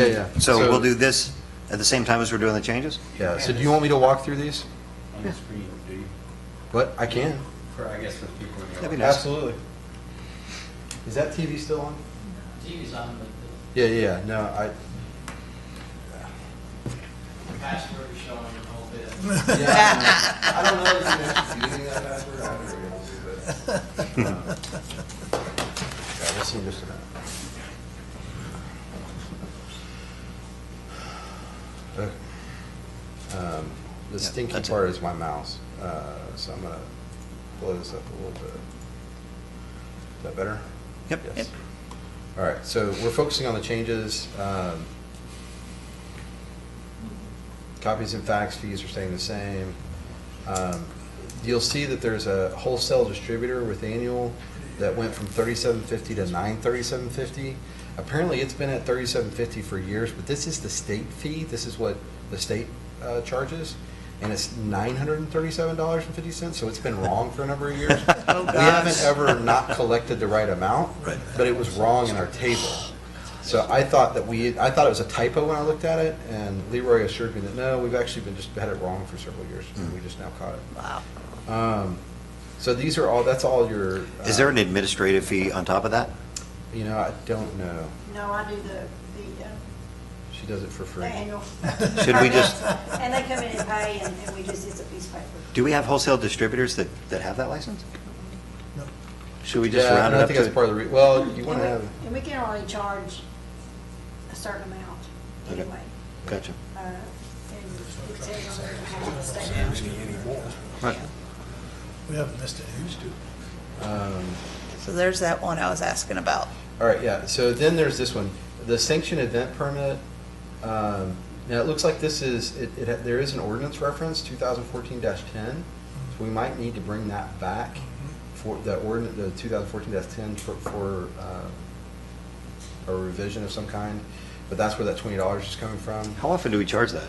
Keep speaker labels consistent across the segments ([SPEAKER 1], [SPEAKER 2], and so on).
[SPEAKER 1] Yeah, yeah.
[SPEAKER 2] So
[SPEAKER 1] So-
[SPEAKER 2] we'll do this at the same time as we're doing the changes?
[SPEAKER 1] Yeah, so do you want me to walk through these?
[SPEAKER 3] on the screen, do you?
[SPEAKER 1] What, I can.
[SPEAKER 3] For, I guess for the people in the
[SPEAKER 2] That'd be
[SPEAKER 3] audience.
[SPEAKER 2] nice.
[SPEAKER 1] Absolutely. Is that TV still on?
[SPEAKER 4] TV's on, but
[SPEAKER 1] Yeah, yeah, yeah. no, I,
[SPEAKER 4] the password is showing a little bit.
[SPEAKER 1] yeah, I don't know if you're actually using that password, I don't really do, but, um, Yeah, we'll see in just a minute. Okay. Um, The
[SPEAKER 2] Yeah,
[SPEAKER 1] stinky
[SPEAKER 2] that's it.
[SPEAKER 1] part is my mouse, uh, so I'm gonna blow this up a little bit. Is that better?
[SPEAKER 2] Yep.
[SPEAKER 1] Yes. All right, so we're focusing on the changes. um, Copies and fax fees are staying the same. Um, You'll see that there's a wholesale distributor with annual that went from thirty-seven fifty to nine thirty-seven fifty. Apparently, it's been at thirty-seven fifty for years, but this is the state fee. This is what the state uh, charges, and it's nine hundred and thirty-seven dollars and fifty cents, so it's been wrong for a number of years.
[SPEAKER 5] Oh,
[SPEAKER 1] We haven't
[SPEAKER 5] gosh.
[SPEAKER 1] ever not collected the right amount, but it was wrong in our table. So I thought that we, I thought it was a typo when I looked at it, and Leroy assured me that, no, we've actually been, just had it wrong for several years,
[SPEAKER 2] Hmm.
[SPEAKER 1] and we just now caught it.
[SPEAKER 5] Wow.
[SPEAKER 1] Um, So these are all, that's all your.
[SPEAKER 2] Is there
[SPEAKER 1] uh,
[SPEAKER 2] an administrative fee on top of that?
[SPEAKER 1] You know, I don't know.
[SPEAKER 6] No, I do the, the, uh,
[SPEAKER 1] She does it for free.
[SPEAKER 6] the annual.
[SPEAKER 2] Should we just-
[SPEAKER 6] And they come in and pay, and and we just, it's a piece of paper.
[SPEAKER 2] Do we have wholesale distributors that, that have that license?
[SPEAKER 5] No.
[SPEAKER 2] Should we just
[SPEAKER 1] Yeah,
[SPEAKER 2] round it
[SPEAKER 1] and I
[SPEAKER 2] up
[SPEAKER 1] think that's part
[SPEAKER 2] to?
[SPEAKER 1] of the, re- well, you want to
[SPEAKER 6] And we-
[SPEAKER 1] have,
[SPEAKER 6] And we can only charge a certain amount
[SPEAKER 2] Okay.
[SPEAKER 6] anyway.
[SPEAKER 2] Gotcha.
[SPEAKER 6] Uh, And it depends on how the state.
[SPEAKER 2] Right.
[SPEAKER 5] We haven't missed any. Who's doing?
[SPEAKER 1] um,
[SPEAKER 5] So there's that one I was asking about.
[SPEAKER 1] all right, yeah, so then there's this one, the sanctioned event permit. um, Now, it looks like this is, it, it, ha- there is an ordinance reference, 2014-10, so we might need to bring that back for the ordinance, the 2014-10 for, for uh, a revision of some kind, but that's where that $20 is coming from.
[SPEAKER 2] How often do we charge that?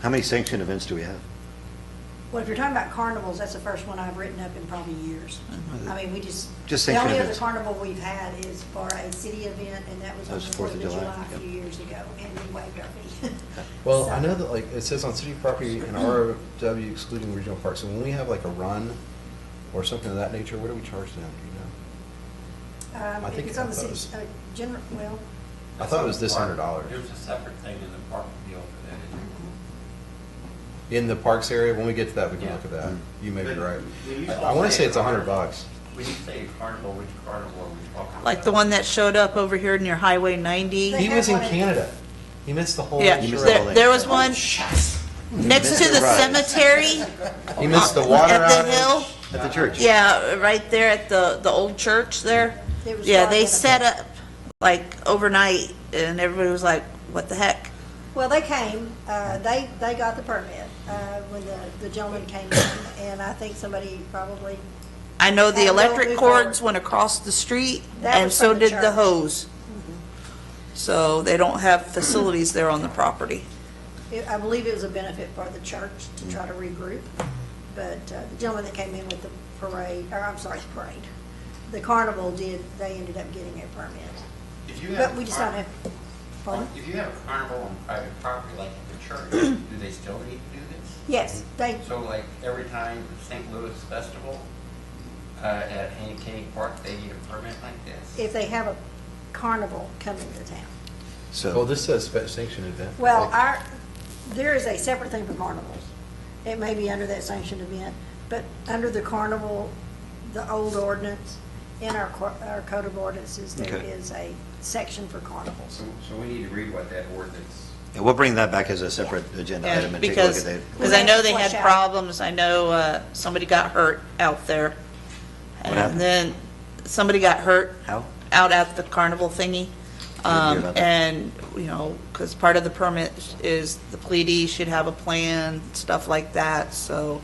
[SPEAKER 2] How many sanctioned events do we have?
[SPEAKER 6] Well, if you're talking about carnivals, that's the first one I've written up in probably years. I mean, we just,
[SPEAKER 2] Just
[SPEAKER 6] the
[SPEAKER 2] sanctioned
[SPEAKER 6] only other
[SPEAKER 2] events.
[SPEAKER 6] carnival we've had is for a city event, and that was
[SPEAKER 2] That
[SPEAKER 6] on
[SPEAKER 2] was
[SPEAKER 6] the Fourth of July a
[SPEAKER 2] yep.
[SPEAKER 6] few years ago, and we waived our fee.
[SPEAKER 1] Well, I
[SPEAKER 6] So-
[SPEAKER 1] know that like it says on city property and ROW excluding regional parks. So when we have like a run or something of that nature, what do we charge them? Do you know?
[SPEAKER 6] Um,
[SPEAKER 1] I
[SPEAKER 6] if
[SPEAKER 1] think
[SPEAKER 6] it's on
[SPEAKER 1] I
[SPEAKER 6] the
[SPEAKER 1] thought it
[SPEAKER 6] city's, uh, general, well,
[SPEAKER 1] I thought it was this hundred
[SPEAKER 3] There's
[SPEAKER 1] dollars
[SPEAKER 3] a separate thing in the parking deal for that. isn't there?
[SPEAKER 1] in the parks area. When we get to that, we can look at that.
[SPEAKER 2] Mm.
[SPEAKER 1] You may be
[SPEAKER 3] But
[SPEAKER 1] right.
[SPEAKER 3] when you
[SPEAKER 1] I, want to say it's a hundred
[SPEAKER 3] carnival-
[SPEAKER 1] bucks.
[SPEAKER 3] When you say carnival, which carnival are we talking about?
[SPEAKER 5] Like the one that showed up over here near Highway 90.
[SPEAKER 6] They
[SPEAKER 1] He
[SPEAKER 6] have
[SPEAKER 1] was in
[SPEAKER 6] one in-
[SPEAKER 1] Canada. He missed the whole.
[SPEAKER 5] Yeah,
[SPEAKER 2] You missed the whole
[SPEAKER 5] there,
[SPEAKER 2] thing.
[SPEAKER 5] there was one next
[SPEAKER 2] missed
[SPEAKER 5] to
[SPEAKER 2] it
[SPEAKER 5] the
[SPEAKER 2] right.
[SPEAKER 5] cemetery uh,
[SPEAKER 1] He missed the water
[SPEAKER 5] at the
[SPEAKER 1] outage.
[SPEAKER 5] hill.
[SPEAKER 2] At the church?
[SPEAKER 5] Yeah, right there at the, the old church there.
[SPEAKER 6] It was
[SPEAKER 5] Yeah, they
[SPEAKER 6] dark.
[SPEAKER 5] set up like overnight and everybody was like, what the heck?
[SPEAKER 6] well, they came, uh, they, they got the permit, uh, when the, the gentleman came in, and I think somebody probably,
[SPEAKER 5] I know the
[SPEAKER 6] And don't
[SPEAKER 5] electric
[SPEAKER 6] move
[SPEAKER 5] cords
[SPEAKER 6] forward.
[SPEAKER 5] went across the street
[SPEAKER 6] That
[SPEAKER 5] and
[SPEAKER 6] was
[SPEAKER 5] so
[SPEAKER 6] from the
[SPEAKER 5] did the
[SPEAKER 6] church.
[SPEAKER 5] hose. So they don't have facilities there on the property.
[SPEAKER 6] it- I believe it was a benefit for the church to try to regroup. But, uh, the gentleman that came in with the parade, or I'm sorry, the parade, the carnival did, they ended up getting a permit.
[SPEAKER 3] If you have
[SPEAKER 6] But we
[SPEAKER 3] a
[SPEAKER 6] just don't
[SPEAKER 3] carnival-
[SPEAKER 6] have, pardon?
[SPEAKER 3] If you have a carnival on private property, like the church, do they still need to do this?
[SPEAKER 6] Yes, they,
[SPEAKER 3] So like every time St. Louis Festival uh, at Hank Kane Park, they need a permit like this?
[SPEAKER 6] if they have a carnival coming to town.
[SPEAKER 1] Well,
[SPEAKER 2] So,
[SPEAKER 1] this says spe- sanctioned event.
[SPEAKER 6] Well,
[SPEAKER 1] Like,
[SPEAKER 6] our, there is a separate thing for carnivals. It may be under that sanctioned event, but under the carnival, the old ordinance, in our, co- our code of ordinances, there
[SPEAKER 2] Okay.
[SPEAKER 6] is a section for carnivals.
[SPEAKER 3] So, so we need to read what that ordinance
[SPEAKER 2] yeah, we'll bring that back as a separate agenda
[SPEAKER 5] Yeah,
[SPEAKER 2] item and take a look at
[SPEAKER 5] because,
[SPEAKER 2] that.
[SPEAKER 5] because I know they
[SPEAKER 6] Flush
[SPEAKER 5] had
[SPEAKER 6] out.
[SPEAKER 5] problems, I know uh, somebody got hurt out there.
[SPEAKER 2] happened?
[SPEAKER 5] And then somebody got hurt
[SPEAKER 2] How?
[SPEAKER 5] out at the carnival thingy.
[SPEAKER 2] I didn't hear
[SPEAKER 5] Um,
[SPEAKER 2] about that.
[SPEAKER 5] And, you know, because part of the permit is the pleady should have a plan, stuff like that, so.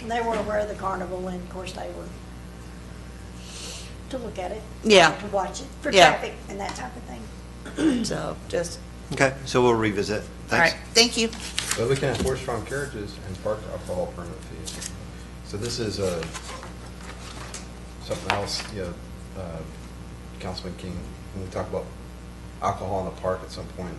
[SPEAKER 6] And they were aware of the carnival, and of course, they were to look at it.
[SPEAKER 5] Yeah.
[SPEAKER 6] To watch it, for
[SPEAKER 5] Yeah.
[SPEAKER 6] traffic and that type of thing.
[SPEAKER 5] So just,
[SPEAKER 2] Okay, so we'll revisit.
[SPEAKER 5] all right,
[SPEAKER 2] Thanks.
[SPEAKER 5] thank you.
[SPEAKER 1] But we can enforce strong carriages and park alcohol permit fees. So this is uh, something else, you know, uh, Councilman King, when we talk about alcohol in the park at some point.